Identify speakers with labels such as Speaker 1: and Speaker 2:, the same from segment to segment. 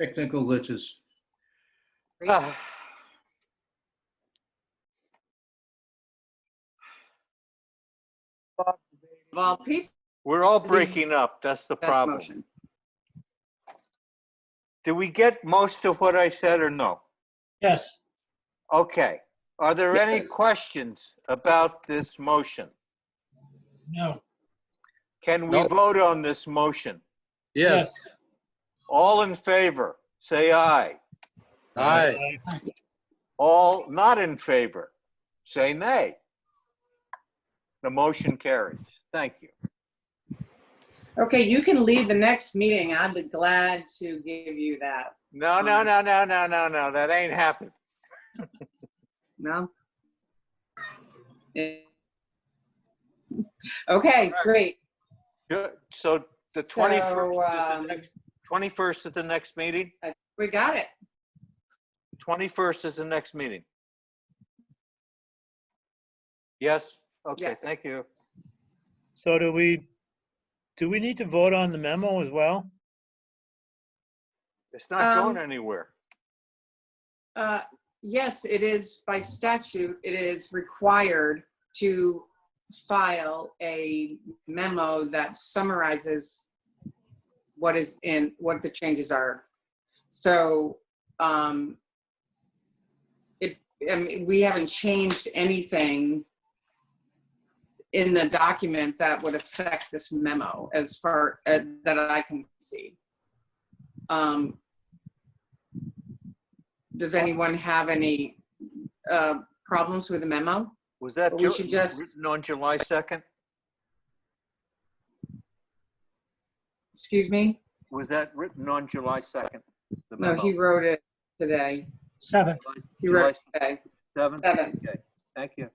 Speaker 1: Technical glitches.
Speaker 2: Ah.
Speaker 3: Of all people,
Speaker 2: We're all
Speaker 3: Agreed.
Speaker 2: breaking up. That's the
Speaker 3: that's the
Speaker 2: problem.
Speaker 3: motion.
Speaker 2: Do we get most of what I said or no?
Speaker 4: Yes,
Speaker 2: Okay. Are there any
Speaker 3: Yes.
Speaker 2: questions about this motion?
Speaker 4: no,
Speaker 2: Can we
Speaker 5: No.
Speaker 2: vote on this motion?
Speaker 5: Yes,
Speaker 4: yes.
Speaker 2: All in favor, say aye.
Speaker 5: aye,
Speaker 4: Aye.
Speaker 2: All not in favor, say nay. The motion carries. Thank you.
Speaker 3: Okay, you can leave the next meeting. I'd be glad to give you that.
Speaker 2: No, no, no, no, no, no, no, that ain't happened.
Speaker 3: No? Eh. Okay, great.
Speaker 2: Ju- So the
Speaker 3: So,
Speaker 2: 21st, is
Speaker 3: um,
Speaker 2: the next- 21st is the next meeting?
Speaker 3: We got it.
Speaker 2: 21st is the next meeting. Yes? Okay,
Speaker 3: Yes.
Speaker 2: thank you.
Speaker 4: So do we, do we need to vote on the memo as well?
Speaker 2: It's not going
Speaker 3: Um,
Speaker 2: anywhere.
Speaker 3: Uh, Yes, it is by statute, it is required to file a memo that summarizes what is in, what the changes are. So um it, I mean, we haven't changed anything in the document that would affect this memo as far, uh, that I can see. Um does anyone have any uh, problems with the memo?
Speaker 2: Was that
Speaker 3: we
Speaker 2: Ju-
Speaker 3: should just-
Speaker 2: written on July 2nd?
Speaker 3: Excuse me?
Speaker 2: Was that written on July 2nd? The
Speaker 3: No,
Speaker 2: memo?
Speaker 3: he wrote it today.
Speaker 4: Seven.
Speaker 3: He wrote it today.
Speaker 2: Seven?
Speaker 3: Seven.
Speaker 2: Okay, thank you.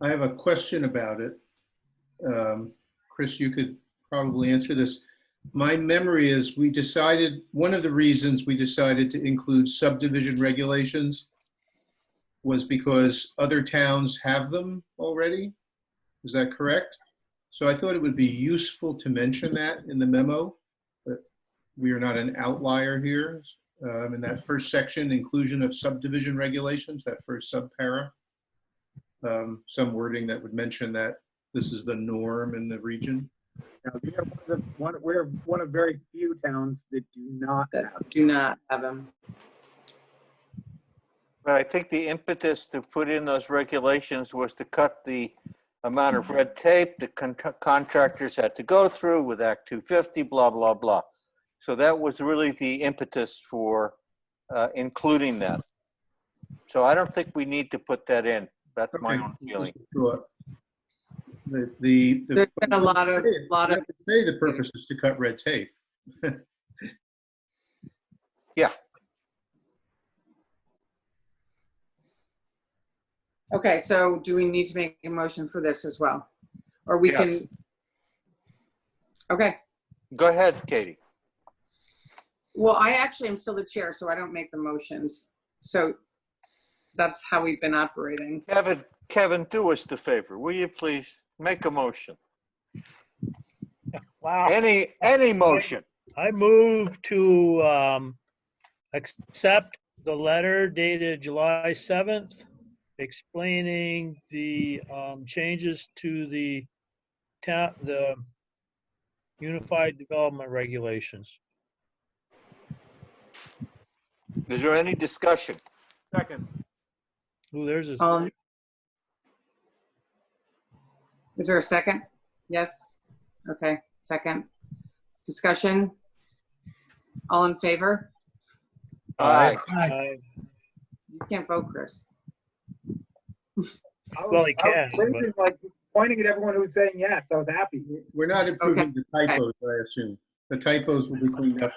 Speaker 1: I have a question about it. Um, Chris, you could probably answer this. My memory is we decided, one of the reasons we decided to include subdivision regulations was because other towns have them already. Is that correct? So I thought it would be useful to mention that in the memo, but we are not an outlier here. Um, In that first section, inclusion of subdivision regulations, that first subpara um, some wording that would mention that this is the norm in the region.
Speaker 6: Now, we are one of the, one, we're one of very few towns that do not
Speaker 3: That do not have him.
Speaker 2: But I think the impetus to put in those regulations was to cut the amount of red tape the con- contractors had to go through with Act 250, blah, blah, blah. So that was really the impetus for uh, including that. So I don't think we need to put that in. That's my
Speaker 1: Okay.
Speaker 2: own feeling.
Speaker 1: Sure. The, the. the-
Speaker 3: There's been a lot of,
Speaker 1: Hey,
Speaker 3: lot
Speaker 1: you
Speaker 3: of,
Speaker 1: have to Say the purpose is to cut red tape.
Speaker 3: okay, so do we need to make a motion for this as well? Or we can? Okay,
Speaker 2: Go ahead, Katie.
Speaker 3: well, I actually am still the chair, so I don't make the motions. So that's how we've been operating.
Speaker 2: Kevin, Kevin, do us the favor. Will you please make a motion?
Speaker 4: Wow.
Speaker 2: Any, any motion?
Speaker 4: I move to um, accept the letter dated July 7th explaining the um, changes to the town, the Unified Development Regulations.
Speaker 2: Is there any discussion?
Speaker 6: second.
Speaker 4: Ooh, there's a,
Speaker 3: Um, Is there a second? Yes? Okay, second. Discussion? All in favor?
Speaker 2: Aye.
Speaker 4: I-
Speaker 3: You can't vote, Chris.
Speaker 6: I was-
Speaker 4: Well, he
Speaker 6: I was
Speaker 4: can, but-
Speaker 6: waving, like, Pointing at everyone who was saying yes, I was happy.
Speaker 1: We're not improving the typos, I assume. The typos will be cleaned up.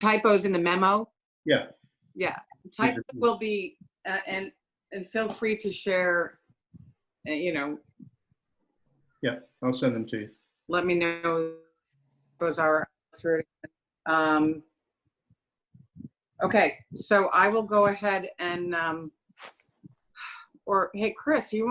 Speaker 3: Typos in the memo?
Speaker 1: Yeah.
Speaker 3: Yeah, type will be, uh, and, and feel free to share, uh, you know,
Speaker 1: I'll send them to you.
Speaker 3: let me know those are through. Um, okay, so I will go ahead and, um, or, hey, Chris, you want?